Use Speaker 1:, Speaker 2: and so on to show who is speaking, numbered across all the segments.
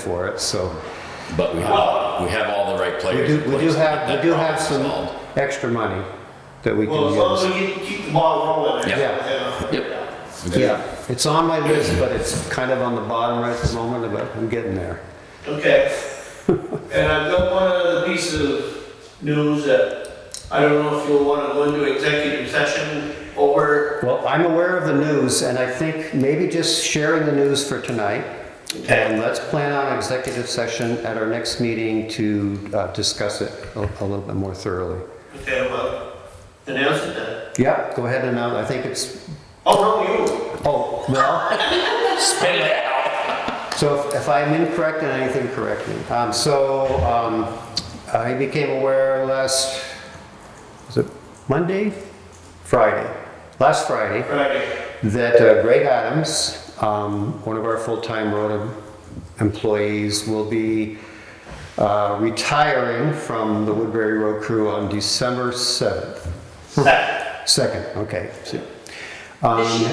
Speaker 1: for it, so.
Speaker 2: But we have, we have all the right
Speaker 1: We
Speaker 2: players
Speaker 1: do, we
Speaker 2: in
Speaker 1: do
Speaker 2: place to get
Speaker 1: have,
Speaker 2: that
Speaker 1: we do have
Speaker 2: problem
Speaker 1: some
Speaker 2: solved.
Speaker 1: extra money that we
Speaker 3: Well, as long as
Speaker 1: can use.
Speaker 3: we keep- keep the ball rolling.
Speaker 2: Yeah.
Speaker 3: Yeah.
Speaker 2: Yep.
Speaker 1: Yeah, it's on my list, but it's kind of on the bottom right at the moment, but I'm getting there.
Speaker 3: Okay. And I've got one other piece of news that I don't know if you'll want to go into executive session over.
Speaker 1: Well, I'm aware of the news, and I think maybe just sharing the news for tonight. And let's plan on executive session at our next meeting to uh, discuss it a a little bit more thoroughly.
Speaker 3: Okay, well, announce it then.
Speaker 1: Yeah, go ahead and, uh, I think it's,
Speaker 3: Oh, no, you.
Speaker 1: oh, well,
Speaker 2: Spit it out.
Speaker 1: so if- if I'm incorrect in anything, correct me. Um, So um, I became aware last, was it Monday? Friday, last Friday.
Speaker 3: Friday.
Speaker 1: that uh, Greg Adams, um, one of our full-time road em- employees, will be uh, retiring from the Woodbury Road Crew on December 7th.
Speaker 2: Hmm.
Speaker 3: Second.
Speaker 1: 2nd, okay. So, um,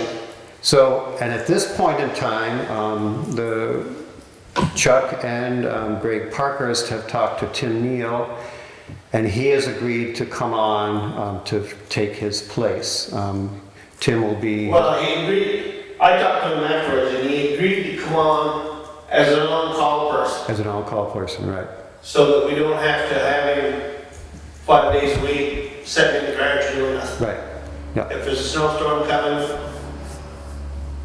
Speaker 1: So, and at this point in time, um, the Chuck and um, Greg Parkhurst have talked to Tim Neal, and he has agreed to come on um, to take his place. Um, Tim will be...
Speaker 3: Well, he agreed, I talked to him afterwards and he agreed to come on as an on-call person
Speaker 1: As an on-call person, right.
Speaker 3: so that we don't have to have him five days a week sitting in the garage doing nothing.
Speaker 1: Right. Yeah,
Speaker 3: If there's a snowstorm coming,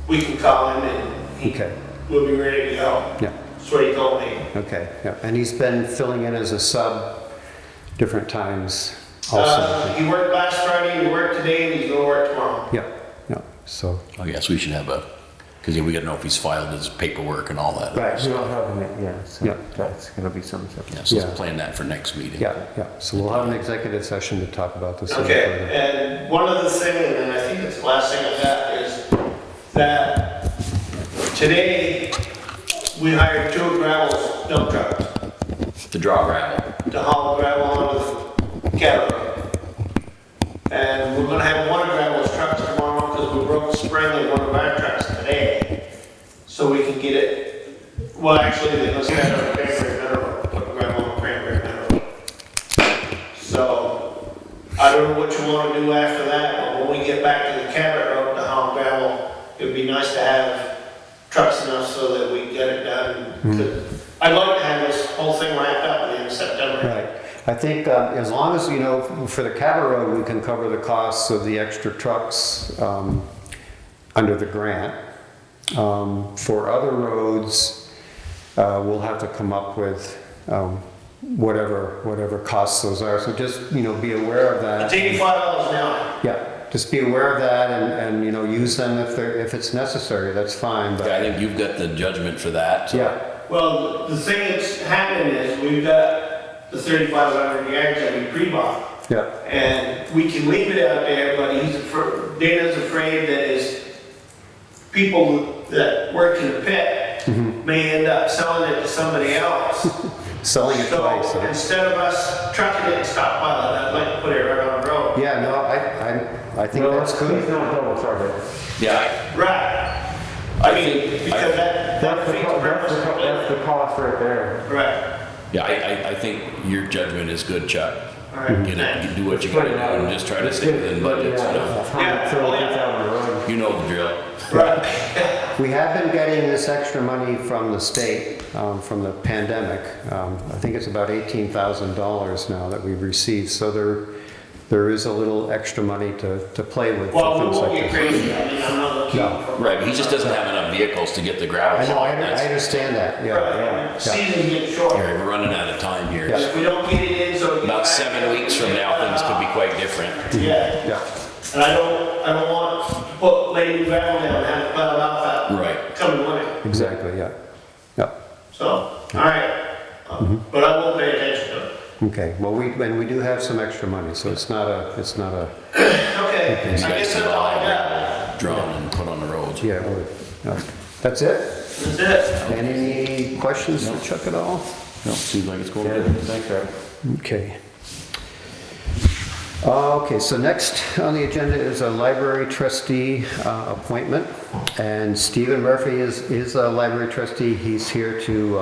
Speaker 3: we can call him and he-
Speaker 1: okay,
Speaker 3: we'll be ready to go.
Speaker 1: yeah,
Speaker 3: That's what he told me.
Speaker 1: okay, yeah. And he's been filling in as a sub different times
Speaker 3: Uh,
Speaker 1: also.
Speaker 3: he worked last Friday, he worked today, and he's gonna work tomorrow.
Speaker 1: Yeah, yeah, so,
Speaker 2: I guess Oh, we should have a, because we gotta know if he's filed his paperwork and all that.
Speaker 1: right,
Speaker 4: We don't have them yet, yeah,
Speaker 1: Yeah.
Speaker 4: so that's gonna be some stuff.
Speaker 2: Yeah, so
Speaker 1: Yeah.
Speaker 2: let's plan that for next meeting.
Speaker 1: yeah, yeah. So we'll have an executive session to talk about this. a little
Speaker 3: Okay,
Speaker 1: further.
Speaker 3: and one other thing, and I think it's the last thing I got, is that today, we hired two gravel dump trucks
Speaker 2: To draw gravel.
Speaker 3: to haul gravel onto the cattle road. And we're gonna have one of Gravel's trucks tomorrow, because we broke spring in one of our trucks today. So we can get it, well, actually, they must have it on Cranberry Meadow, put gravel on Cranberry Meadow. So, I don't know what you wanna do after that, but when we get back to the cattle road to haul gravel, it'd be nice to have trucks enough so that we get it done. 'Cause I'd like to have this whole thing wrapped up in September.
Speaker 1: Right. I think um, as long as, you know, for the cattle road, we can cover the costs of the extra trucks um, under the grant. Um, For other roads, uh, we'll have to come up with um, whatever, whatever costs those are. So just, you know, be aware of that.
Speaker 3: It's eighty-five dollars an hour.
Speaker 1: Yeah, just be aware of that and, and, you know, use them if they're, if it's necessary, that's fine,
Speaker 2: Yeah, I
Speaker 1: but,
Speaker 2: think you've got the judgment for that. so-
Speaker 1: yeah,
Speaker 3: Well, the thing that's happening is we've got the thirty-five hundred yards that we pre-bought.
Speaker 1: yeah.
Speaker 3: And we can leave it out there, but he's, afr- Dana's afraid that his people that work in the pit may end up selling it to somebody else.
Speaker 1: Selling it twice.
Speaker 3: So
Speaker 1: huh?
Speaker 3: instead of us trucking it and stockpiling, I'd like to put it right on the road.
Speaker 1: Yeah, no, I, I, I think
Speaker 4: No,
Speaker 1: that's
Speaker 4: Please
Speaker 1: good.
Speaker 4: don't double charge it.
Speaker 2: Yeah,
Speaker 3: Right.
Speaker 2: I
Speaker 3: I mean,
Speaker 2: think-
Speaker 3: because that, that
Speaker 4: That's the,
Speaker 3: defeats the
Speaker 4: co- that's
Speaker 3: purpose
Speaker 4: the, co- that's
Speaker 3: completely.
Speaker 4: the cost right there.
Speaker 3: Right.
Speaker 2: I- yeah, I, I, I think your judgment is good, Chuck.
Speaker 3: All right,
Speaker 2: Get
Speaker 3: thanks.
Speaker 2: it, do what you gotta do and just try to stay within budgets, you know?
Speaker 3: Yeah,
Speaker 4: So
Speaker 3: well,
Speaker 4: it gets
Speaker 3: yeah.
Speaker 4: out of the road.
Speaker 2: You know the drill.
Speaker 3: Right.
Speaker 1: We have been getting this extra money from the state, um, from the pandemic. Um, I think it's about eighteen thousand dollars now that we've received, so there, there is a little extra money to, to play with for
Speaker 3: Well, we
Speaker 1: things
Speaker 3: won't
Speaker 1: like
Speaker 3: get
Speaker 1: this.
Speaker 3: crazy, I mean, I'm not looking
Speaker 1: No.
Speaker 3: for.
Speaker 2: Right, but he just doesn't have enough vehicles to get the gravel.
Speaker 1: I know, I,
Speaker 2: hauled,
Speaker 1: I
Speaker 2: that's-
Speaker 1: understand that, yeah,
Speaker 3: Right,
Speaker 1: yeah, yeah.
Speaker 3: season gets short,
Speaker 2: Here, We're running out of time here.
Speaker 1: Yeah.
Speaker 3: if we don't get it in, so. we get
Speaker 2: About
Speaker 3: back-
Speaker 2: seven weeks from now, things could be quite different.
Speaker 3: Yeah,
Speaker 1: Yeah,
Speaker 3: and I don't, I don't want to put Lady gravel down and have it plowed off that
Speaker 2: Right.
Speaker 3: coming winter,
Speaker 1: exactly, yeah, yeah.
Speaker 3: so, all right.
Speaker 1: Mm-hmm.
Speaker 3: But I won't pay attention to it.
Speaker 1: Okay, well, we, and we do have some extra money, so it's not a, it's not a,
Speaker 3: Okay, I
Speaker 2: These guys
Speaker 3: guess
Speaker 2: have
Speaker 3: that's all
Speaker 2: all
Speaker 3: I got,
Speaker 2: gravel drawn and put on the roads.
Speaker 1: yeah, it would. Yeah. That's it?
Speaker 3: that's it.
Speaker 1: Any questions for Chuck at all?
Speaker 2: No, seems like it's going
Speaker 4: Yeah,
Speaker 2: good.
Speaker 4: thanks, Eric.
Speaker 1: Okay. Uh, Okay, so next on the agenda is a library trustee uh, appointment, and Stephen Murphy is, is a library trustee. He's here to uh,